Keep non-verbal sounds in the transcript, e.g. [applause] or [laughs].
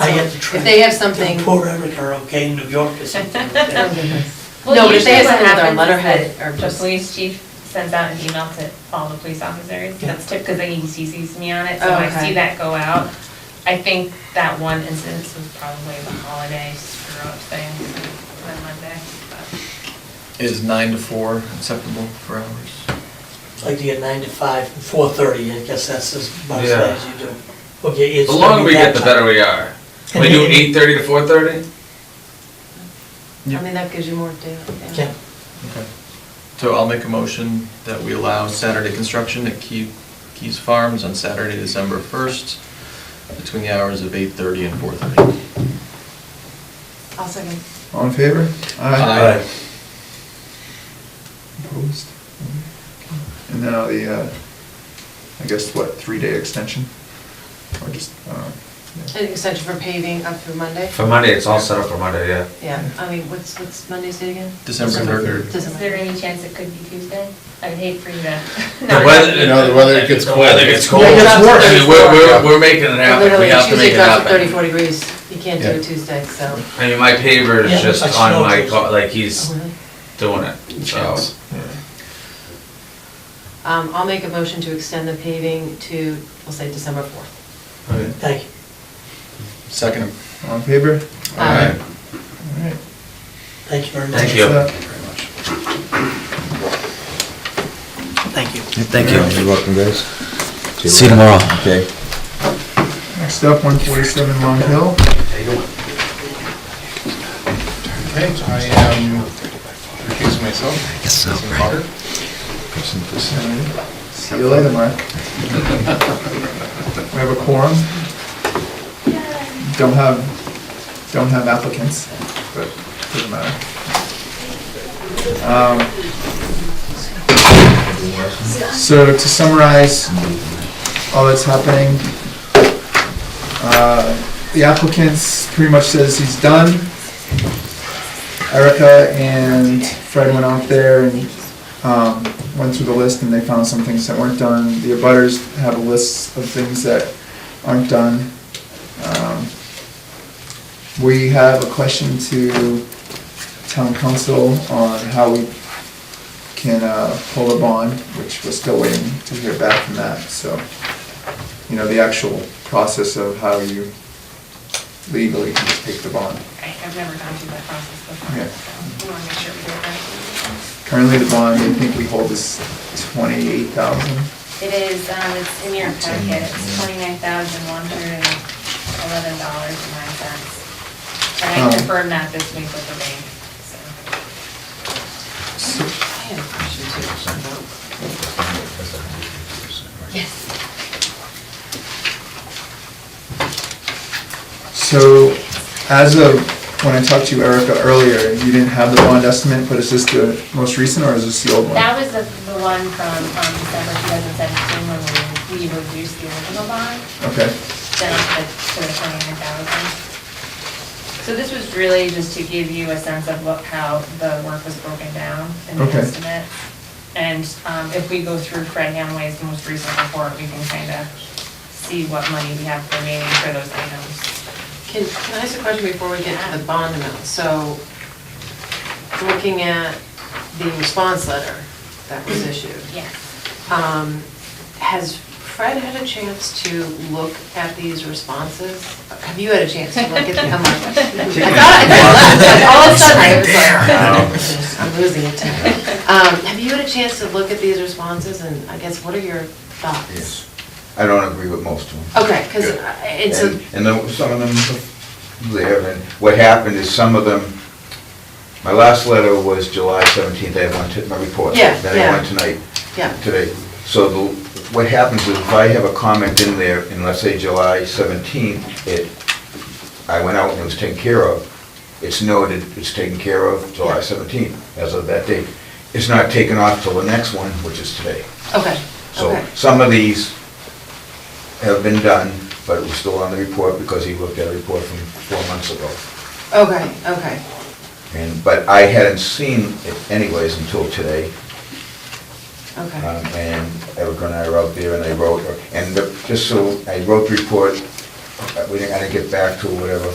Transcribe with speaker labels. Speaker 1: I had to try.
Speaker 2: If they have something-
Speaker 1: to Pour everything, or okay, New York
Speaker 2: [laughs]
Speaker 1: or something like that.
Speaker 2: No,
Speaker 3: Well,
Speaker 2: but if they
Speaker 3: usually
Speaker 2: have
Speaker 3: what
Speaker 2: something with our
Speaker 3: happens is
Speaker 2: letterhead
Speaker 3: that
Speaker 2: or
Speaker 3: The
Speaker 2: just-
Speaker 3: police chief sends out an email to all the police officers,
Speaker 1: Yeah.
Speaker 3: that's typically, because he CCs me on it, so
Speaker 2: Oh,
Speaker 3: I
Speaker 2: okay.
Speaker 3: see that go out. I think that one incident was probably the holiday screw up thing on Monday, but
Speaker 4: Is nine to four acceptable for hours?
Speaker 1: I'd Like to get nine to five, four thirty, I guess that's as much
Speaker 5: Yeah.
Speaker 1: as you do. Okay, it's
Speaker 5: The
Speaker 1: gonna
Speaker 5: longer
Speaker 1: be
Speaker 5: we
Speaker 1: that
Speaker 5: get, the
Speaker 1: time.
Speaker 5: better we are. We
Speaker 1: And
Speaker 5: do
Speaker 1: then-
Speaker 5: eight thirty to four thirty?
Speaker 2: I mean, that gives you more data.
Speaker 1: Yeah,
Speaker 4: Okay. So I'll make a motion that we allow Saturday construction at Key, Keys Farms on Saturday, December first, between the hours of eight thirty and four thirty.
Speaker 2: I'll second.
Speaker 6: All in favor?
Speaker 4: Aye. Aye.
Speaker 6: Opposed? And now the, uh, I guess, what, three-day extension? Or just, uh, yeah.
Speaker 2: An extension for paving up through Monday?
Speaker 5: For Monday, it's all set up for Monday, yeah.
Speaker 2: Yeah, I mean, what's, what's Monday's date again?
Speaker 4: December third.
Speaker 3: is there any chance it could be Tuesday? I would hate for you to.
Speaker 5: The weather,
Speaker 7: You know, the weather gets cold.
Speaker 5: Weather gets cold.
Speaker 2: It gets worse.
Speaker 5: I mean, We're, we're, we're making it happen, we
Speaker 2: Literally,
Speaker 5: have to
Speaker 2: Tuesday
Speaker 5: make it
Speaker 2: drops to
Speaker 5: happen.
Speaker 2: thirty-four degrees. You can't do
Speaker 6: Yeah.
Speaker 2: it Tuesday, so.
Speaker 5: I mean, my paver
Speaker 1: Yeah,
Speaker 5: is just
Speaker 1: it's like
Speaker 5: on my,
Speaker 1: snow.
Speaker 5: car, like, he's
Speaker 2: Oh, really?
Speaker 5: doing it, so.
Speaker 4: Chance.
Speaker 2: Um, I'll make a motion to extend the paving to, we'll say December fourth.
Speaker 1: thank you.
Speaker 4: Second.
Speaker 6: All in favor?
Speaker 2: Aye.
Speaker 6: All right.
Speaker 1: Thank you very much.
Speaker 5: Thank you.
Speaker 1: Thank you.
Speaker 8: Thank you. You're welcome, guys.
Speaker 7: See you tomorrow.
Speaker 8: Okay.
Speaker 6: Next up, one forty-seven Long Hill.
Speaker 7: Okay, I am recusing myself. Yes,
Speaker 6: See you later, Mark. We have a quorum. Don't have, don't have applicants, but doesn't matter. Um, So to summarize all that's happening, uh, the applicant pretty much says he's done. Erica and Fred went out there and um, went through the list and they found some things that weren't done. The abutters have a list of things that aren't done. Um, We have a question to town council on how we can uh, pull a bond, which we're still waiting to hear back from that, so, you know, the actual process of how you legally can take the bond.
Speaker 3: I- I've never gone through that process
Speaker 6: Yeah.
Speaker 3: before, so I want to make sure we do it right.
Speaker 6: Currently, the bond, I think we hold is twenty-eight thousand.
Speaker 3: It is, um, it's in your packet, it's twenty-nine thousand, one hundred and eleven dollars and nine cents. And
Speaker 6: Um,
Speaker 3: I confirmed that this week with the bank, so.
Speaker 2: I have a question too. Yes.
Speaker 6: So, as of when I talked to you, Erica, earlier, you didn't have the bond estimate, but is this the most recent, or is this the old one?
Speaker 3: That was the, the one from, um, December two thousand seventeen, when we, we reduced the original bond
Speaker 6: Okay,
Speaker 3: down to, to the twenty-nine thousand. So this was really just to give you a sense of what, how the work was broken down in the
Speaker 6: Okay.
Speaker 3: estimate. And, um, if we go through Fred Hamway's most recent report, we can kind of see what money we have remaining for those items.
Speaker 2: Can, can I ask a question before we get to the bond amount? So, looking at the response letter that was issued,
Speaker 3: Yes.
Speaker 2: um, has Fred had a chance to look at these responses? Have you had a chance to look at them? I'm like, I thought I left, but all of a sudden, I was like, "Oh, I'm losing it tonight. Um, Have you had a chance to look at these responses, and I guess, what are your thoughts?
Speaker 7: Yes. I don't agree with most of them.
Speaker 2: Okay, because
Speaker 7: Good.
Speaker 2: it's a,
Speaker 7: And- And then some of them there, and what happened is some of them, my last letter was July 17th, I had one, to- my report.
Speaker 2: Yeah,
Speaker 7: Then
Speaker 2: yeah.
Speaker 7: I went tonight,
Speaker 2: yeah,
Speaker 7: today. So the- what happens is if I have a comment in there, and let's say July 17th, it, I went out and it was taken care of, it's noted, it's taken care of July 17th, as of that date. It's not taken off till the next one, which is today.
Speaker 2: okay,
Speaker 7: So
Speaker 2: okay,
Speaker 7: some of these have been done, but it was still on the report because he looked at a report from four months ago.
Speaker 2: okay, okay.
Speaker 7: And, but I hadn't seen it anyways until today. Um,
Speaker 2: Okay,
Speaker 7: And Erica and I were out there and I wrote, and the- just so, I wrote the report uh, we didn't, I didn't get back to whatever